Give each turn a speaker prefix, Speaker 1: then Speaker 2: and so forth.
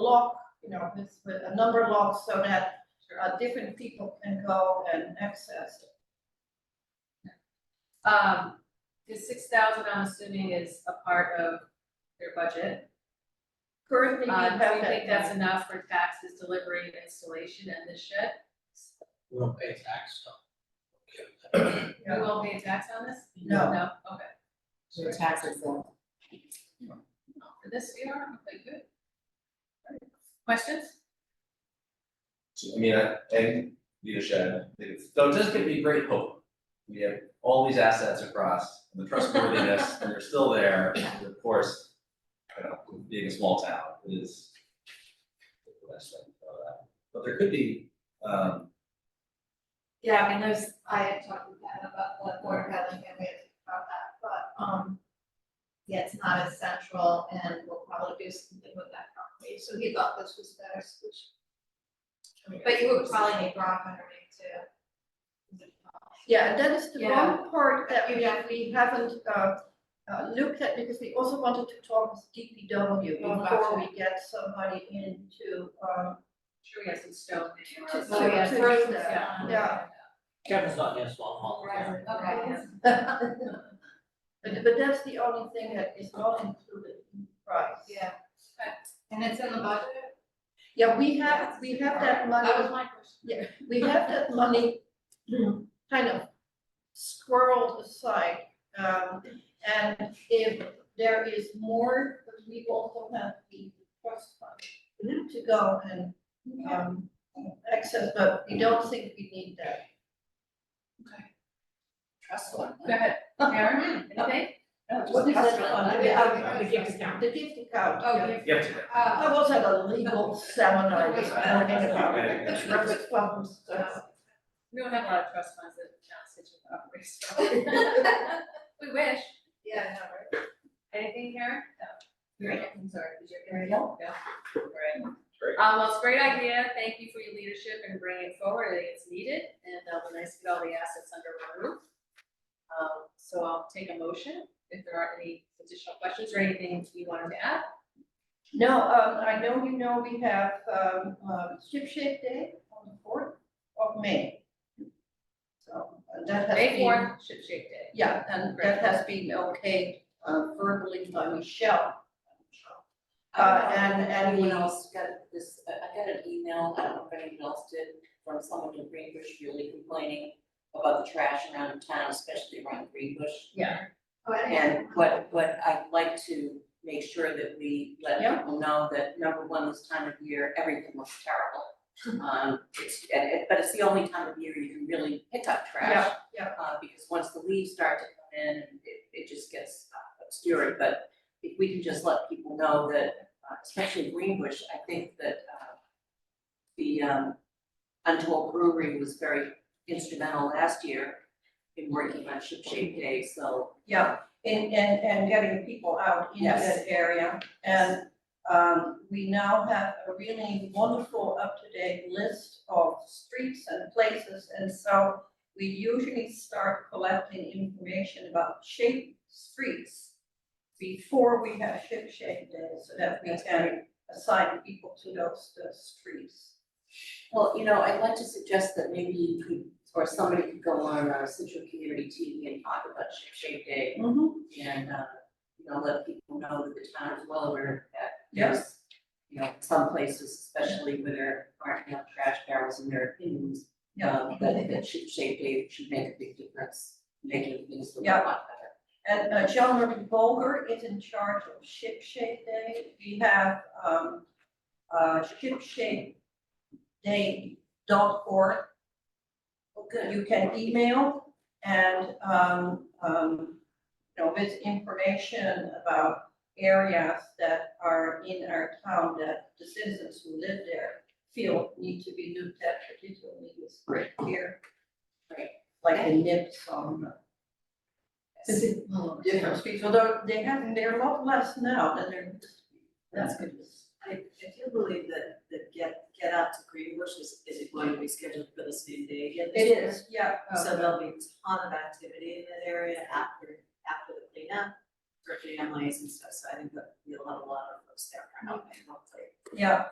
Speaker 1: lock, you know, with, with a number lock so that uh, different people can go and access it.
Speaker 2: Um, the six thousand, I'm assuming is a part of their budget.
Speaker 1: Currently, we
Speaker 2: Uh,
Speaker 1: have
Speaker 2: do you
Speaker 1: that.
Speaker 2: think that's enough for taxes, delivery, installation, and this shit?
Speaker 3: We don't pay tax, so.
Speaker 2: We
Speaker 1: Yeah.
Speaker 2: won't pay a tax on this?
Speaker 1: No.
Speaker 2: No, okay.
Speaker 4: Your taxes then.
Speaker 2: For this, we are, okay, good. Questions?
Speaker 5: I mean, I, and leadership, I think it's- so it does give me great hope. We have all these assets across, and the trustworthiness, and they're still there, and of course, you know, being a small town is the best thing about that. But there could be, um,
Speaker 1: Yeah, I mean, there's, I had talked with Pat about the board having a way about that, but, um, yeah, it's not as central and we'll probably do something with that property, so he thought this was a better solution.
Speaker 5: I mean,
Speaker 1: But you would probably need rock underneath too. Yeah, and that is the one part that we, that we haven't, uh, uh, looked at, because we also wanted to talk with DPW
Speaker 2: Oh,
Speaker 1: before we get somebody in to, um,
Speaker 2: Sure, we have some stone in there.
Speaker 1: Just
Speaker 2: Oh,
Speaker 1: to-
Speaker 2: yeah,
Speaker 1: to
Speaker 2: throw
Speaker 1: use
Speaker 2: some
Speaker 1: that,
Speaker 2: stone.
Speaker 1: yeah.
Speaker 3: Kevin's not against long haul, yeah.
Speaker 2: Okay,
Speaker 1: Right. but, but that's the only thing that is not included in the price.
Speaker 6: Yeah. And it's in the budget?
Speaker 1: Yeah, we have, we have that money,
Speaker 6: That was my question.
Speaker 1: we have that money kind of squirreled aside. Um, and if there is more, we also have the trust fund to go and, um, access, but we don't think we need that.
Speaker 4: Trust one.
Speaker 2: Go ahead, Karen, anything?
Speaker 1: What is that fund?
Speaker 4: I
Speaker 1: The-
Speaker 4: mean,
Speaker 1: uh,
Speaker 4: I would give this down.
Speaker 1: The gift account.
Speaker 6: Oh,
Speaker 1: yeah.
Speaker 6: yeah.
Speaker 5: You have to.
Speaker 1: I
Speaker 6: Uh,
Speaker 1: was at a legal seminar this morning about trust funds. uh,
Speaker 2: We don't have a lot of trust funds that John Stitch operates from. We wish.
Speaker 6: yeah, no, right.
Speaker 2: Anything, Karen? No.
Speaker 5: No.
Speaker 2: I'm sorry, did you have anything? No. Great.
Speaker 5: Great.
Speaker 2: Um, well, it's a great idea. Thank you for your leadership and bringing it forward. I think it's needed and it'll be nice to get all the assets under one roof. Um, so I'll take a motion if there aren't any additional questions or anything you wanted to add.
Speaker 1: No, um, I know you know we have, um, um, Ship Shape Day on the fourth of May. So uh, that has been.
Speaker 2: May fourth, Ship Shape Day.
Speaker 1: Yeah, and that has been okayed uh, verbally by Michelle. Uh, and, and
Speaker 4: Um, Anyone
Speaker 1: we,
Speaker 4: else got this, I I got an email, I don't know if anyone else did, from someone in Greenbush really complaining about the trash around town, especially around Greenbush.
Speaker 6: Oh, I didn't-
Speaker 4: And what, what I'd like to make sure that we let
Speaker 1: Yeah.
Speaker 4: people know that, number one, this time of year, everything looks terrible. Um, it's, and it- but it's the only time of year you can really pick up trash.
Speaker 1: yeah, yeah,
Speaker 4: uh, because once the leaves start to come in, it, it just gets uh, obscured, but if we can just let people know that, uh, especially Greenbush, I think that, uh, the, um, Untold Brewery was very instrumental last year in working on Ship Shape Day, so,
Speaker 1: yeah, and, and, and getting people out in
Speaker 4: Yes.
Speaker 1: that area. And, um, we now have a really wonderful up-to-date list of streets and places. And so we usually start collecting information about shape streets before we have Ship Shape Day, so that we
Speaker 4: That's
Speaker 1: can assign people to those, those streets.
Speaker 4: well, you know, I'd like to suggest that maybe you could, or somebody could go on, uh, Central Community TV and talk about Ship Shape Day, and, uh, you know, let people know that the town is well aware that there's, you know, some places, especially where there aren't enough trash barrels in their opinions,
Speaker 1: Yeah,
Speaker 4: um, that that should shape day should make a big difference, making things look a
Speaker 1: Yeah.
Speaker 4: lot
Speaker 1: and uh, John Ruby Bolger is in charge of Ship Shape Day. We have, um, uh, shipshapeday.org.
Speaker 4: better. Well,
Speaker 1: You can email and, um, um, you know, with information about areas that are in our town that the citizens who live there feel need to be looked at, particularly this right here.
Speaker 4: Right.
Speaker 1: Like the nips on. Different streets, although they have, they're a lot less now than there used to be. That's good.
Speaker 7: I, I do believe that, that get, get out to Greenbush is, is going to be scheduled for the same day again this
Speaker 1: It
Speaker 7: year.
Speaker 1: is, yeah. uh,
Speaker 7: So there'll be a ton of activity in that area after, after the cleanup for families and stuff, so I think that we'll have a lot of folks there for helping, hopefully.
Speaker 1: Yeah,